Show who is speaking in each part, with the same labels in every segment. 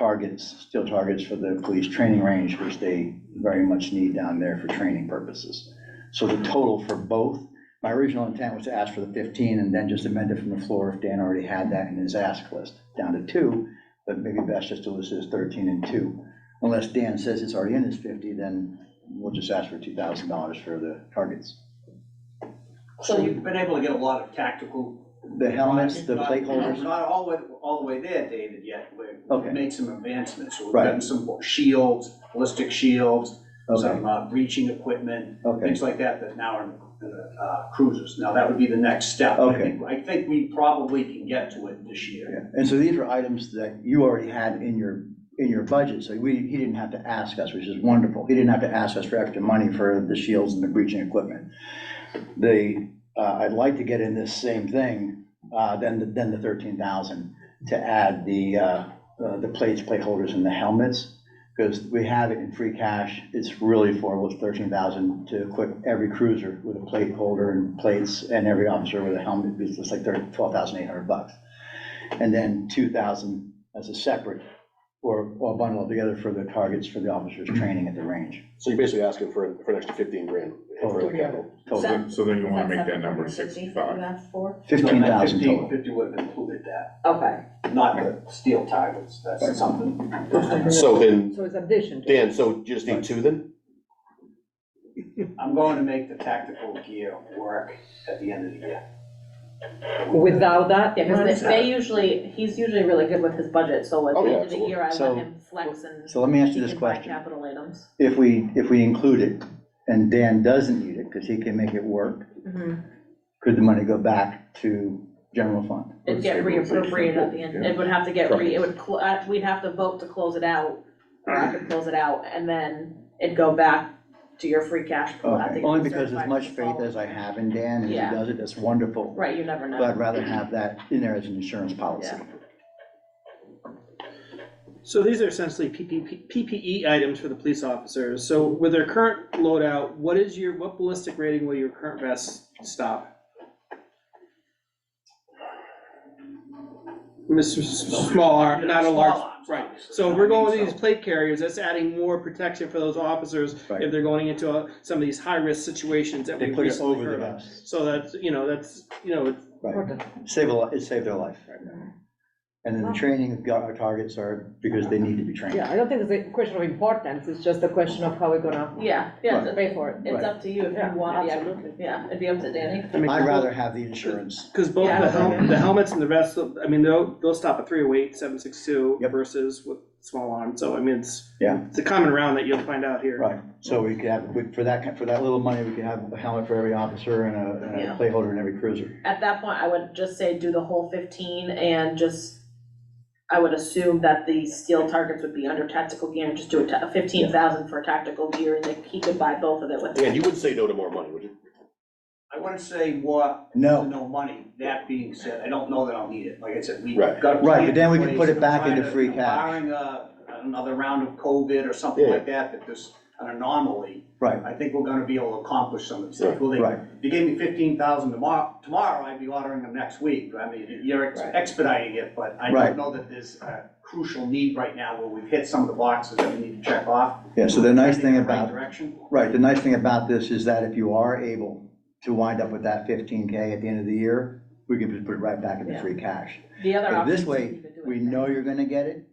Speaker 1: targets, steel targets for the police training range, which they very much need down there for training purposes. So the total for both, my original intent was to ask for the 15 and then just amend it from the floor if Dan already had that in his ask list, down to two. But maybe best just to list it as 13 and two. Unless Dan says it's already in his 50, then we'll just ask for $2,000 for the targets.
Speaker 2: So
Speaker 3: We've
Speaker 2: you,
Speaker 3: been able to get a lot of tactical.
Speaker 1: The helmets, the
Speaker 3: Not-
Speaker 1: plate holders,
Speaker 3: We're not all the way, all the way there, David, yet. We've
Speaker 1: Okay.
Speaker 3: made some advancements. We've
Speaker 1: Right.
Speaker 3: gotten some shields, ballistic shields,
Speaker 1: okay,
Speaker 3: some uh, breaching equipment,
Speaker 1: okay.
Speaker 3: things like that that now are in the, uh, cruisers. Now, that would be the next step. I
Speaker 1: Okay.
Speaker 3: think- I think we probably can get to it this year.
Speaker 1: Yeah, And so these were items that you already had in your, in your budget, so we, he didn't have to ask us, which is wonderful. He didn't have to ask us for extra money for the shields and the breaching equipment. The, uh, I'd like to get in this same thing, uh, then, the- then the thirteen thousand to add the, uh, uh, the plates, plate holders and the helmets. Because we have it in free cash, it's really affordable, it's thirteen thousand to equip every cruiser with a plate holder and plates and every officer with a helmet, it's just like thirty, twelve thousand eight hundred bucks and then two thousand as a separate, or, or bundled together for the targets for the officers training at the range.
Speaker 4: So you're basically asking for, for an extra fifteen grand
Speaker 1: Oh,
Speaker 4: for the capital.
Speaker 1: Total,
Speaker 5: So then you wanna
Speaker 2: Is
Speaker 5: make that
Speaker 2: seven
Speaker 5: number
Speaker 2: hundred fifty that You
Speaker 5: sixty-five.
Speaker 2: asked for?
Speaker 1: fifteen thousand
Speaker 3: Fifteen
Speaker 1: total.
Speaker 3: fifty would have included that,
Speaker 2: Okay.
Speaker 3: not the steel targets. That's something.
Speaker 4: So then,
Speaker 2: So it's addition to.
Speaker 4: Dan, so you just need two then?
Speaker 3: I'm going to make the tactical gear work at the end of the year.
Speaker 6: Without that,
Speaker 7: Yeah, because they they usually, he's usually really good with his budget, so at
Speaker 4: Oh,
Speaker 7: the
Speaker 4: yeah,
Speaker 7: end of the
Speaker 4: absolutely.
Speaker 7: year, I
Speaker 1: So-
Speaker 7: let him flex and
Speaker 1: So let me ask
Speaker 7: he
Speaker 1: you this
Speaker 7: can buy
Speaker 1: question.
Speaker 7: capital items.
Speaker 1: If we, if we include it, and Dan doesn't need it, because he can make it work, could the money go back to general fund?
Speaker 7: It'd get reappropriated at the end, it would have to get re, it would, cl- uh, we'd have to vote to close it out, or I could close it out, and then it'd go back to your free cash pool at the.
Speaker 1: Okay, Only because as
Speaker 7: certified
Speaker 1: much faith as I
Speaker 7: following.
Speaker 1: have in Dan, and if
Speaker 7: Yeah.
Speaker 1: he does it, that's wonderful,
Speaker 7: Right, you never
Speaker 1: but I'd
Speaker 7: know.
Speaker 1: rather have that in there as an insurance policy.
Speaker 8: So these are essentially PPP PPE E items for the police officers. So with their current loadout, what is your, what ballistic rating will your current vest stop? Mr. S- Small arm, not a
Speaker 3: Small
Speaker 8: large,
Speaker 3: arms,
Speaker 8: right.
Speaker 3: obviously.
Speaker 8: So if we're going with
Speaker 3: So-
Speaker 8: these plate carriers, that's adding more protection for those officers
Speaker 1: Right.
Speaker 8: if they're going into uh, some of these high-risk situations that
Speaker 1: They
Speaker 8: we've
Speaker 1: put it
Speaker 8: recently
Speaker 1: over the
Speaker 8: heard of.
Speaker 1: vest,
Speaker 8: So that's, you know, that's, you know, it's-
Speaker 1: right, save a, li- it saved their life. And then the training gar- targets are because they need to be trained.
Speaker 6: yeah, I don't think it's a question of importance, it's just a question of how we're gonna
Speaker 7: Yeah, yeah, it's-
Speaker 6: pay for it.
Speaker 7: it's up to you if you want, yeah,
Speaker 6: Absolutely.
Speaker 7: yeah, it'd be up to Danny.
Speaker 8: I mean.
Speaker 1: I'd rather have the insurance.
Speaker 8: Because both
Speaker 7: Yeah.
Speaker 8: the, hel- the helmets and the rest, of- I mean, they'll, they'll stop at three oh eight, seven six two
Speaker 1: Yep.
Speaker 8: versus with small arm, so I mean, it's.
Speaker 1: Yeah.
Speaker 8: It's a common round that you'll find out here.
Speaker 1: Right, so we could have, we- for that, ki- for that little money, we could have a helmet for every officer and a, and a
Speaker 7: Yeah.
Speaker 1: plate holder in every cruiser.
Speaker 7: at that point, I would just say do the whole fifteen and just, I would assume that the steel targets would be under tactical gear and just do a ta- fifteen thousand for tactical gear and then he could buy both of it with.
Speaker 4: Dan, you wouldn't say no to more money, would you?
Speaker 3: I wouldn't say what,
Speaker 1: No,
Speaker 3: no money, that being said, I don't know that I'll need it, like I said, we've
Speaker 4: Right.
Speaker 3: got. a
Speaker 1: Right, but
Speaker 3: plan
Speaker 1: then we
Speaker 3: in
Speaker 1: can
Speaker 3: place,
Speaker 1: put it
Speaker 3: and
Speaker 1: back
Speaker 3: trying
Speaker 1: into
Speaker 3: to-
Speaker 1: free cash.
Speaker 3: Barring, uh, another round of COVID or something
Speaker 4: Yeah.
Speaker 3: like that, that there's an anomaly,
Speaker 1: right,
Speaker 3: I think we're gonna be able to accomplish some of these things.
Speaker 4: Right.
Speaker 3: Well, they-
Speaker 1: Right.
Speaker 3: If you gave me fifteen thousand tomorrow, tomorrow, I'd be ordering them next week, I mean, you're ex-
Speaker 7: Right.
Speaker 3: expediting it, but I
Speaker 1: Right.
Speaker 3: don't know that there's a crucial need right now where we've hit some of the boxes that we need to check off.
Speaker 1: yeah, so the nice thing
Speaker 3: Heading in the right
Speaker 1: about,
Speaker 3: Direction.
Speaker 1: right, the nice thing about this is that if you are able to wind up with that fifteen K at the end of the year, we can just put it right back into
Speaker 7: Yeah.
Speaker 1: free cash.
Speaker 7: The other
Speaker 1: But
Speaker 7: option
Speaker 1: this
Speaker 7: is
Speaker 1: way,
Speaker 7: you could do it
Speaker 1: We
Speaker 7: then.
Speaker 1: know you're gonna get it,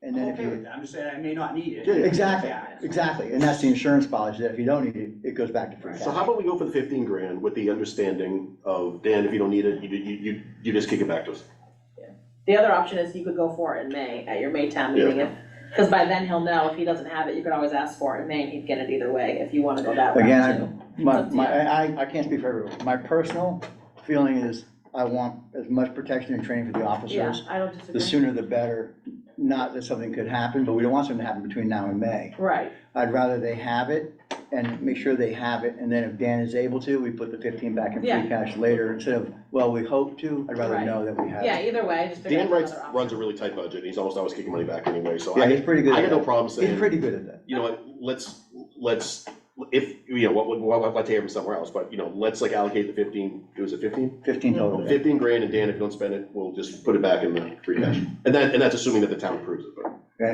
Speaker 1: and
Speaker 3: I'm
Speaker 1: then if
Speaker 3: okay with
Speaker 1: you,
Speaker 3: that, I'm just saying I may not need it.
Speaker 1: exactly,
Speaker 3: Yeah.
Speaker 1: exactly, and that's the insurance policy, that if you don't need it, it goes back to free cash.
Speaker 4: So how about we go for the fifteen grand with the understanding of, Dan, if you don't need it, you, you, you, you just kick it back to us.
Speaker 7: The other option is you could go for it in May, at your May town meeting, if, cause by then he'll know, if he doesn't have it, you could always ask for it in May and he'd get it either way, if you wanna go that route
Speaker 1: Again, I-
Speaker 7: too.
Speaker 1: My,
Speaker 7: Up to
Speaker 1: my,
Speaker 7: you.
Speaker 1: I, I- I can't speak for everyone. My personal feeling is I want as much protection and training for the
Speaker 7: Yeah,
Speaker 1: officers.
Speaker 7: I don't
Speaker 1: The
Speaker 7: disagree,
Speaker 1: sooner the better. Not that something could happen, but we don't want something to happen between now and May.
Speaker 7: right,
Speaker 1: I'd rather they have it and make sure they have it. And then if Dan is able to, we put the fifteen back in
Speaker 7: Yeah.
Speaker 1: free cash later instead of, well, we hope to. I'd rather
Speaker 7: Right.
Speaker 1: know that we have
Speaker 7: yeah,
Speaker 1: it.
Speaker 7: either way, just figure out
Speaker 4: Dan
Speaker 7: another
Speaker 4: writes,
Speaker 7: option.
Speaker 4: runs a really tight budget, and he's almost always kicking money back anyway, so
Speaker 1: Yeah,
Speaker 4: I,
Speaker 1: he's pretty good
Speaker 4: I
Speaker 1: at
Speaker 4: got no
Speaker 1: that.
Speaker 4: problem
Speaker 1: He's
Speaker 4: saying,
Speaker 1: pretty good at that.
Speaker 4: you know what, let's, let's, if, you know, what, what, what, I'd take him somewhere else, but, you know, let's like allocate the fifteen, it was a fifteen?
Speaker 1: Fifteen total.
Speaker 4: Fifteen grand, and Dan, if you don't spend it, we'll just put it back in the free cash. And that, and that's assuming that the town approves it,